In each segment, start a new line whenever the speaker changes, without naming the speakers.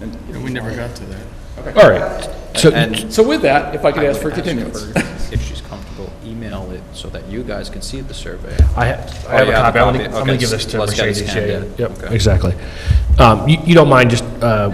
And-
Yeah, We never got to that.
All right. So,
And
So with that, Uh, if I could
I
ask
would
for a
her
continuance.
If she's comfortable, email it so that you guys can see the survey.
I ha- I
Oh,
have
you
a
have
copy.
a
I'm gonna-
copy.
I'm gonna
Okay,
give this to
let's get it
Mercedes. Yeah,
scanned
yeah.
in.
Yep,
Okay.
exactly. Um, You you don't mind just, uh,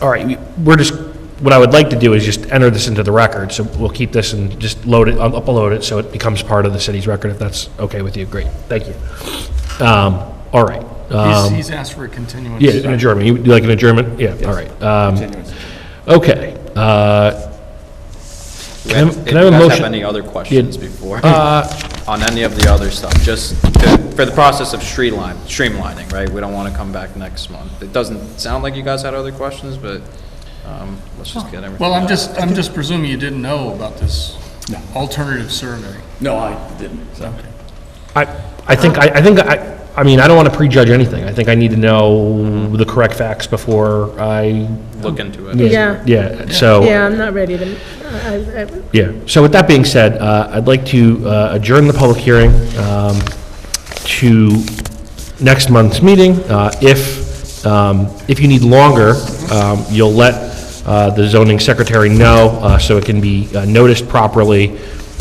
all right, we- we're just, what I would like to do is just enter this into the record, so we'll keep this and just load it, up- upload it, so it becomes part of the city's record, if that's okay with you. Great, thank you. Um, All right.
He's,
Um,
he's asked for a continuance.
Yeah, an adjournment. You- You like an adjournment? Yeah, all right. Um,
Continuance.
Okay. uh,
Do
Can I-
you
can I have a
guys
motion-
have any other questions
Yeah.
before,
Uh,
on any of the other stuff? Just to- for the process of streamline, streamlining, right? We don't want to come back next month. It doesn't sound like you guys had other questions, but um, let's just get everything.
Well, I'm just, I'm just presuming you didn't know about this alternative survey.
No, I didn't, so.
I, I think, I, I think, I, I mean, I don't want to prejudge anything. I think I need to know the correct facts before I.
Look into it.
Yeah.
Yeah, so.
Yeah, I'm not ready to, I, I,
Yeah, so with that being said, uh, I'd like to uh, adjourn the public hearing um, to next month's meeting. Uh, If, um, if you need longer, um, you'll let uh, the zoning secretary know uh, so it can be uh, noticed properly.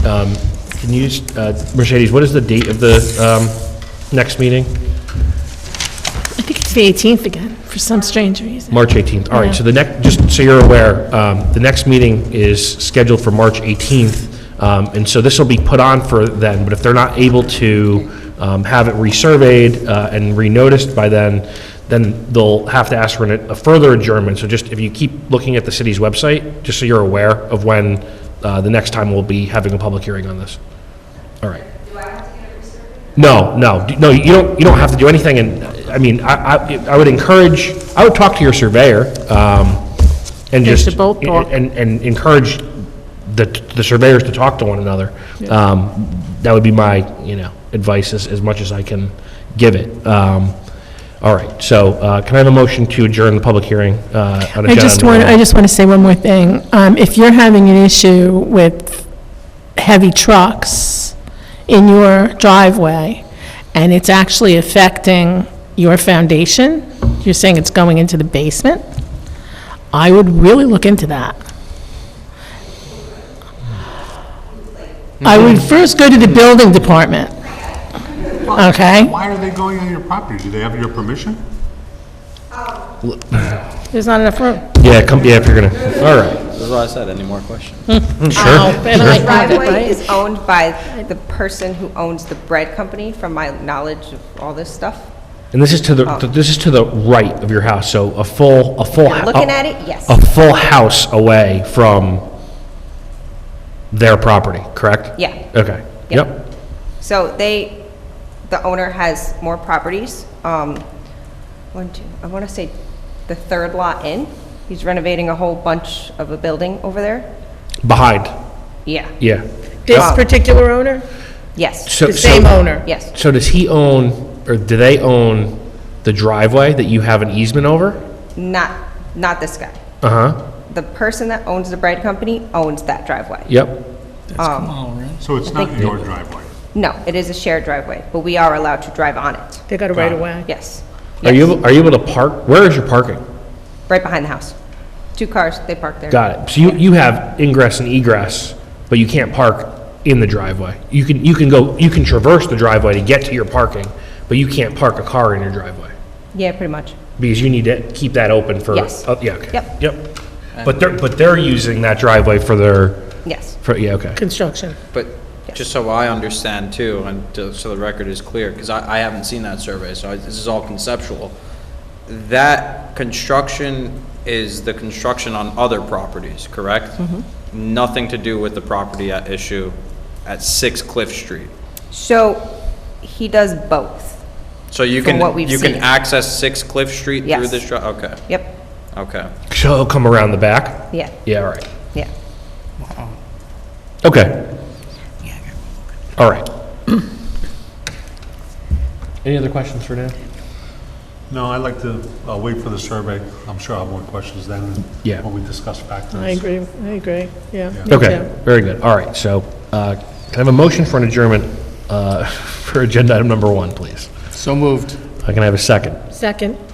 Um, Can you, s- uh, Mercedes, what is the date of the um, next meeting?
I think it's the 18th again, for some strange reason.
March 18th, all right, so the
Yeah.
next, just so you're aware, um, the next meeting is scheduled for March 18th, um, and so this will be put on for then, but if they're not able to um, have it resurveyed uh, and renoticed by then, then they'll have to ask for an- a further adjournment, so just, if you keep looking at the city's website, just so you're aware of when uh, the next time we'll be having a public hearing on this. All right. No, no, d- no, you don't, you don't have to do anything, and, I mean, I, I, I would encourage, I would talk to your surveyor, um, and
They
just.
should both talk.
And, and encourage the, the surveyors to talk to one another. Um, that would be my, you know, advice as, as much as I can give it. Um, all right, so, uh, can I have a motion to adjourn the public hearing, uh, on
I
agenda?
just want, I just want to say one more thing. Um, If you're having an issue with heavy trucks in your driveway, and it's actually affecting your foundation, you're saying it's going into the basement, I would really look into that. I would first go to the building department. Okay?
Why are they going on your property? Do they have your permission?
There's not enough room.
Yeah, come, yeah, if you're gonna, all right,
That's what I said. Any more questions?
sure.
And I-
driveway is owned by the person who owns the bread company, from my knowledge of all this stuff.
And this is to the,
Oh.
this is to the right of your house, so a full, a full. hou-
looking at it, yes.
A full house away from their property, correct?
Yeah.
Okay,
Yeah.
yep,
So they, the owner has more properties. Um, One, two, I want to say the third lot in, he's renovating a whole bunch of a building over there.
behind,
Yeah,
yeah.
This particular owner?
yes,
So-
The
so-
same owner?
yes.
So does he own, or do they own the driveway that you have an easement over?
Not, not this guy.
Uh-huh,
The person that owns the bread company owns that driveway. Um,
yep,
That's Kamal, right?
So it's not your driveway.
No, it is a shared driveway, but we are allowed to drive on it,
They got it right away.
yes.
are you, able- are you able to park, where is your parking?
Right behind the house. Two cars, they park there.
Got it, so you, you have ingress and egress, but you can't park in the driveway. You can, you can go, you can traverse the driveway to get to your parking, but you can't park a car in your driveway.
Yeah, pretty much.
Because you need to keep that open for.
Yes.
oh, Yeah, okay.
Yep.
Yep. But they're, but they're using that driveway for their,
Yes.
for, yeah, okay.
Construction.
But just so I understand too, and to- so the record is clear, because I, I haven't seen that survey, so I- this is all conceptual. That construction is the construction on other properties, correct?
Mm-hmm.
Nothing to do with the property at issue at 6 Cliff Street.
So he does both.
So you
From
can,
what we've
you can
seen.
access 6 Cliff Street through
Yes.
this, dri- okay,
Yep.
okay.
So it'll come around the back?
Yeah.
Yeah, all right.
Yeah.
Okay. All right. Any other questions for Dan?
No, I'd like to uh, wait for the survey. I'm sure I'll have more questions then. and
Yeah.
When we discuss factors.
I agree, I agree, yeah. me
Okay,
too.
very good. All right, so, uh, can I have a motion for an adjournment, uh, for agenda item number one, please?
So moved.
I can I have a second.
Second.